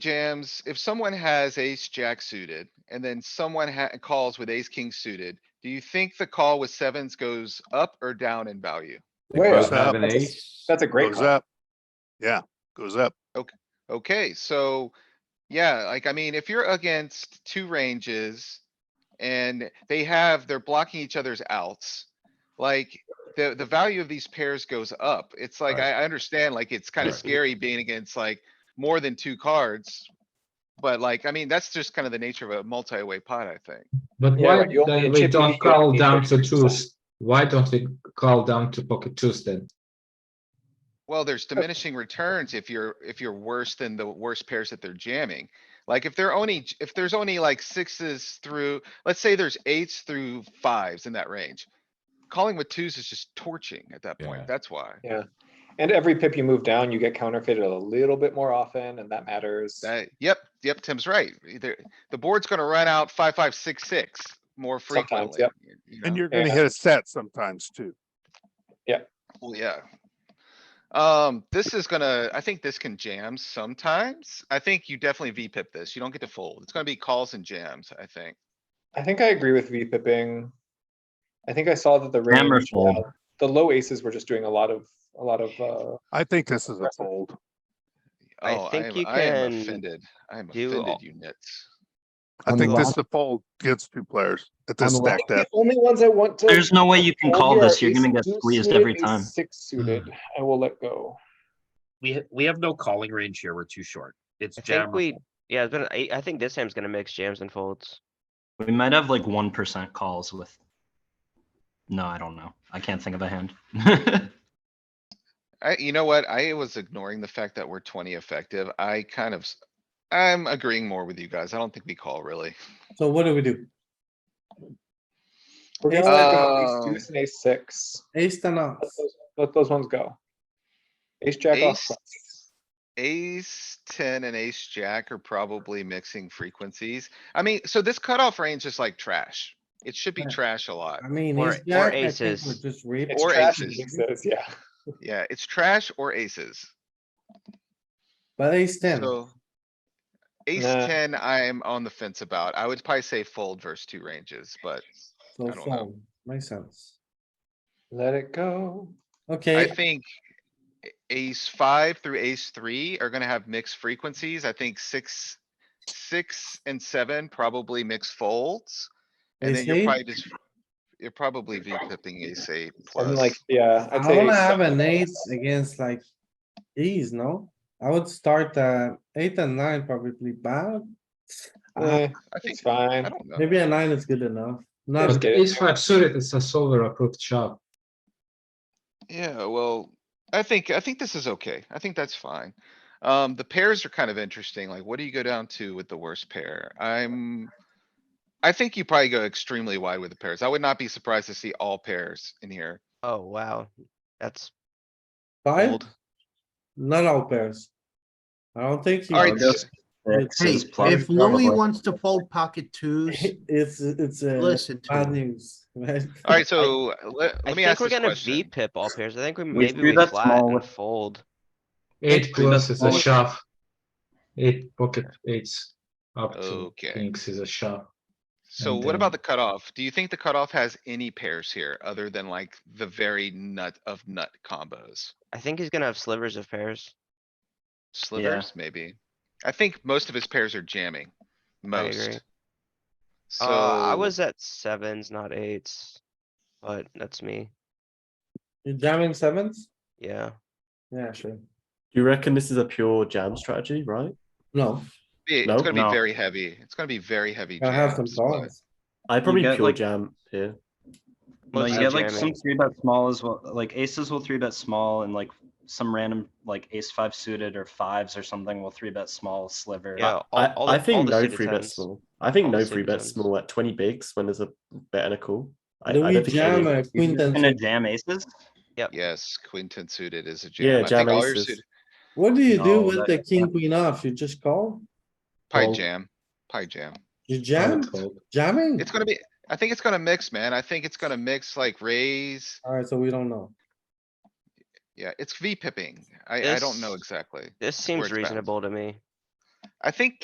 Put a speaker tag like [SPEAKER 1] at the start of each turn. [SPEAKER 1] jams, if someone has ace jack suited and then someone ha- calls with ace king suited, do you think the call with sevens goes up or down in value?
[SPEAKER 2] They
[SPEAKER 3] Way
[SPEAKER 2] both
[SPEAKER 3] up.
[SPEAKER 2] have an
[SPEAKER 3] That's a-
[SPEAKER 2] ace.
[SPEAKER 3] That's a great
[SPEAKER 4] Goes
[SPEAKER 3] call.
[SPEAKER 4] up. Yeah, goes up.
[SPEAKER 1] Okay, so, yeah, like, I mean, if you're against two ranges and they have, they're blocking each other's outs, like, the, the value of these pairs goes up. It's like, I, I understand, like, it's kind of
[SPEAKER 2] Right.
[SPEAKER 1] scary being against like more than two cards. But like, I mean, that's just kind of the nature of a multi-way pot, I think.
[SPEAKER 5] But
[SPEAKER 3] Yeah,
[SPEAKER 5] why
[SPEAKER 3] but you only
[SPEAKER 5] then
[SPEAKER 3] need
[SPEAKER 5] we
[SPEAKER 3] chippy,
[SPEAKER 5] don't
[SPEAKER 3] you
[SPEAKER 5] call
[SPEAKER 3] only need
[SPEAKER 5] down to
[SPEAKER 3] 33%.
[SPEAKER 5] twos? Why don't we call down to pocket twos then?
[SPEAKER 1] Well, there's diminishing returns if you're, if you're worse than the worst pairs that they're jamming. Like if they're only, j- if there's only like sixes through, let's say there's eights through fives in that range. Calling with twos is just torching at that
[SPEAKER 2] Yeah.
[SPEAKER 1] point. That's why.
[SPEAKER 3] And every pip you move down, you get counterfeited a little bit more often and that matters.
[SPEAKER 1] That, yep, yep, Tim's right. Either, the board's gonna run out five, five, six, six more
[SPEAKER 3] Sometimes,
[SPEAKER 1] frequently.
[SPEAKER 3] yep.
[SPEAKER 1] you- you know?
[SPEAKER 4] And you're gonna
[SPEAKER 3] Yeah.
[SPEAKER 4] hit a set sometimes too.
[SPEAKER 1] Well, yeah. Um, this is gonna, I think this can jam sometimes. I think you definitely V pip this. You don't get to fold. It's gonna be calls and jams, I think.
[SPEAKER 3] I think I agree with V pipping. I think I saw that the
[SPEAKER 6] Hammer
[SPEAKER 3] range,
[SPEAKER 6] fold.
[SPEAKER 3] uh, the low aces were just doing a lot of, a lot of, uh,
[SPEAKER 4] I think this is a
[SPEAKER 3] Impressive.
[SPEAKER 4] fold.
[SPEAKER 7] I
[SPEAKER 1] Oh, I
[SPEAKER 7] think
[SPEAKER 1] am,
[SPEAKER 7] you
[SPEAKER 1] I am
[SPEAKER 7] can
[SPEAKER 1] offended. I am
[SPEAKER 7] do
[SPEAKER 1] offended,
[SPEAKER 7] all-
[SPEAKER 1] you nits.
[SPEAKER 4] I
[SPEAKER 8] On
[SPEAKER 4] think
[SPEAKER 8] the
[SPEAKER 4] this
[SPEAKER 8] left-
[SPEAKER 4] is a fold against two players at this
[SPEAKER 8] the left-
[SPEAKER 4] stacked
[SPEAKER 3] the
[SPEAKER 4] up.
[SPEAKER 3] only ones I want to.
[SPEAKER 6] There's no way you can
[SPEAKER 3] fold
[SPEAKER 6] call
[SPEAKER 3] here are
[SPEAKER 6] this. You're gonna
[SPEAKER 3] ace
[SPEAKER 6] get
[SPEAKER 3] deuce
[SPEAKER 6] squeezed
[SPEAKER 3] suited,
[SPEAKER 6] every
[SPEAKER 3] ace
[SPEAKER 6] time.
[SPEAKER 3] Six suited, I will let go.
[SPEAKER 9] We, ha- we have no calling range here. We're too short. It's
[SPEAKER 7] I
[SPEAKER 9] jam.
[SPEAKER 7] think
[SPEAKER 9] or
[SPEAKER 7] we,
[SPEAKER 9] fold.
[SPEAKER 7] yeah, it's gonna- I, I think this hand's gonna mix jams and folds.
[SPEAKER 6] We might have like one percent calls with. No, I don't know. I can't think of a hand.
[SPEAKER 1] I, you know what? I was ignoring the fact that we're twenty effective. I kind of, s- I'm agreeing more with you guys. I don't think we call really.
[SPEAKER 8] So what do we do?
[SPEAKER 3] We're gonna let
[SPEAKER 1] Uh,
[SPEAKER 3] go, ace deuce and ace six.
[SPEAKER 8] Ace ten off.
[SPEAKER 3] Let those- Let those ones go. Ace jack off.
[SPEAKER 1] Ace-
[SPEAKER 3] cuts.
[SPEAKER 1] Ace ten and ace jack are probably mixing frequencies. I mean, so this cutoff range is like trash. It should be
[SPEAKER 8] Yeah.
[SPEAKER 1] trash a lot.
[SPEAKER 8] I mean,
[SPEAKER 7] Or-
[SPEAKER 8] ace
[SPEAKER 7] or
[SPEAKER 8] jack, I think
[SPEAKER 7] aces.
[SPEAKER 8] we're just re.
[SPEAKER 3] It's
[SPEAKER 1] or
[SPEAKER 3] trash and
[SPEAKER 1] aces.
[SPEAKER 3] aces, yeah.
[SPEAKER 1] Yeah, it's trash or aces.
[SPEAKER 8] But ace ten,
[SPEAKER 1] So. Ace
[SPEAKER 3] Nah.
[SPEAKER 1] ten, I am on the fence about. I would probably say fold versus two ranges, but I
[SPEAKER 8] so
[SPEAKER 1] don't know.
[SPEAKER 8] fold, makes sense.
[SPEAKER 3] Let it go.
[SPEAKER 1] I
[SPEAKER 8] Okay,
[SPEAKER 1] think. a- Ace five through ace three are gonna have mixed frequencies. I think six, six and seven probably mix folds. And then
[SPEAKER 8] ace
[SPEAKER 1] you're
[SPEAKER 8] eight,
[SPEAKER 1] probably just, you're probably V pipping ace eight
[SPEAKER 3] I'm
[SPEAKER 1] plus.
[SPEAKER 3] like, yeah, I'd
[SPEAKER 8] I
[SPEAKER 3] say.
[SPEAKER 8] wanna
[SPEAKER 3] ace
[SPEAKER 8] have
[SPEAKER 3] seven.
[SPEAKER 8] an eight against like ease, no? I would start uh eight and nine probably bad. Uh,
[SPEAKER 3] Eh,
[SPEAKER 1] I think,
[SPEAKER 3] It's
[SPEAKER 1] I
[SPEAKER 3] fine.
[SPEAKER 1] don't know.
[SPEAKER 8] Maybe a nine is good enough. Not,
[SPEAKER 5] But
[SPEAKER 3] get it.
[SPEAKER 5] ace five suited is a solver approved shop.
[SPEAKER 1] Yeah, well, I think, I think this is okay. I think that's fine. Um, the pairs are kind of interesting. Like, what do you go down to with the worst pair? I'm. I think you probably go extremely wide with the pairs. I would not be surprised to see all pairs in here.
[SPEAKER 7] Oh, wow, that's
[SPEAKER 8] five,
[SPEAKER 1] Fold.
[SPEAKER 8] not all pairs. I don't think. he-
[SPEAKER 1] Alright,
[SPEAKER 6] Those sixes plus-
[SPEAKER 10] If Louis
[SPEAKER 6] probably.
[SPEAKER 10] wants to fold pocket twos,
[SPEAKER 8] It's, it's a
[SPEAKER 10] listen to
[SPEAKER 8] bad
[SPEAKER 10] him.
[SPEAKER 8] news, right?
[SPEAKER 1] Alright, so let,
[SPEAKER 7] I
[SPEAKER 1] let me ask
[SPEAKER 7] think
[SPEAKER 1] this
[SPEAKER 7] we're gonna V
[SPEAKER 1] question.
[SPEAKER 7] pip all pairs. I think we
[SPEAKER 6] We
[SPEAKER 7] maybe
[SPEAKER 6] do
[SPEAKER 7] we
[SPEAKER 6] that
[SPEAKER 7] flat
[SPEAKER 6] small
[SPEAKER 7] and
[SPEAKER 6] with-
[SPEAKER 7] fold.
[SPEAKER 5] Eight plus is a
[SPEAKER 6] plus-
[SPEAKER 5] shove. Eight pocket eights up to
[SPEAKER 1] Okay.
[SPEAKER 5] kings is a shove.
[SPEAKER 1] So
[SPEAKER 5] and
[SPEAKER 1] what
[SPEAKER 5] then-
[SPEAKER 1] about the cutoff? Do you think the cutoff has any pairs here other than like the very nut of nut combos?
[SPEAKER 7] I think he's gonna have slivers of pairs.
[SPEAKER 1] Slivers, maybe? I think most of his pairs are jamming.
[SPEAKER 7] I agree.
[SPEAKER 1] Most. So.
[SPEAKER 7] Uh, I was at sevens, not eights, but that's me.
[SPEAKER 8] You jamming sevens?
[SPEAKER 7] Yeah.
[SPEAKER 8] Yeah, sure.
[SPEAKER 11] You reckon this is a pure jam strategy, right?
[SPEAKER 8] No,
[SPEAKER 1] It's
[SPEAKER 11] No?
[SPEAKER 1] gonna be
[SPEAKER 6] No.
[SPEAKER 1] very heavy. It's gonna be very heavy.
[SPEAKER 8] I have some
[SPEAKER 1] jams, but-
[SPEAKER 8] thoughts.
[SPEAKER 11] I probably
[SPEAKER 6] get,
[SPEAKER 11] pure
[SPEAKER 6] like-
[SPEAKER 11] jam here.
[SPEAKER 6] No,
[SPEAKER 7] Mostly
[SPEAKER 6] you get like some
[SPEAKER 7] jamming.
[SPEAKER 6] three bet small as well, like aces will three bet small and like some random like ace five suited or fives or something will three bet small sliver.
[SPEAKER 7] Yeah, all-
[SPEAKER 11] I,
[SPEAKER 7] all the- all
[SPEAKER 11] I think
[SPEAKER 7] the
[SPEAKER 11] no
[SPEAKER 7] suited
[SPEAKER 11] free bet
[SPEAKER 7] tens.
[SPEAKER 11] small. I think
[SPEAKER 7] All the
[SPEAKER 11] no
[SPEAKER 7] suited
[SPEAKER 11] free bet
[SPEAKER 7] tens.
[SPEAKER 11] small at twenty bigs when there's a bet and a call. I,
[SPEAKER 8] Do
[SPEAKER 11] I
[SPEAKER 8] we
[SPEAKER 11] don't think
[SPEAKER 8] jam
[SPEAKER 11] any-
[SPEAKER 8] a queen ten
[SPEAKER 6] And a jam aces?
[SPEAKER 1] Yes, queen ten suited is a
[SPEAKER 11] Yeah,
[SPEAKER 1] jam. I
[SPEAKER 11] jam
[SPEAKER 1] think all your
[SPEAKER 11] aces.
[SPEAKER 1] suited,
[SPEAKER 8] What do you do
[SPEAKER 6] No,
[SPEAKER 8] with
[SPEAKER 6] that-
[SPEAKER 8] the king queen off? You just call?
[SPEAKER 1] pie
[SPEAKER 11] Well-
[SPEAKER 1] jam, pie jam.
[SPEAKER 8] You
[SPEAKER 5] I would
[SPEAKER 8] jam?
[SPEAKER 5] fold.
[SPEAKER 8] Jamming?
[SPEAKER 1] It's gonna be, I think it's gonna mix, man. I think it's gonna mix like raise.
[SPEAKER 8] Alright, so we don't know.
[SPEAKER 1] Yeah, it's V pipping. I, I don't know
[SPEAKER 7] This-
[SPEAKER 1] exactly.
[SPEAKER 7] This seems
[SPEAKER 1] it's balanced.
[SPEAKER 7] reasonable to me.
[SPEAKER 1] I think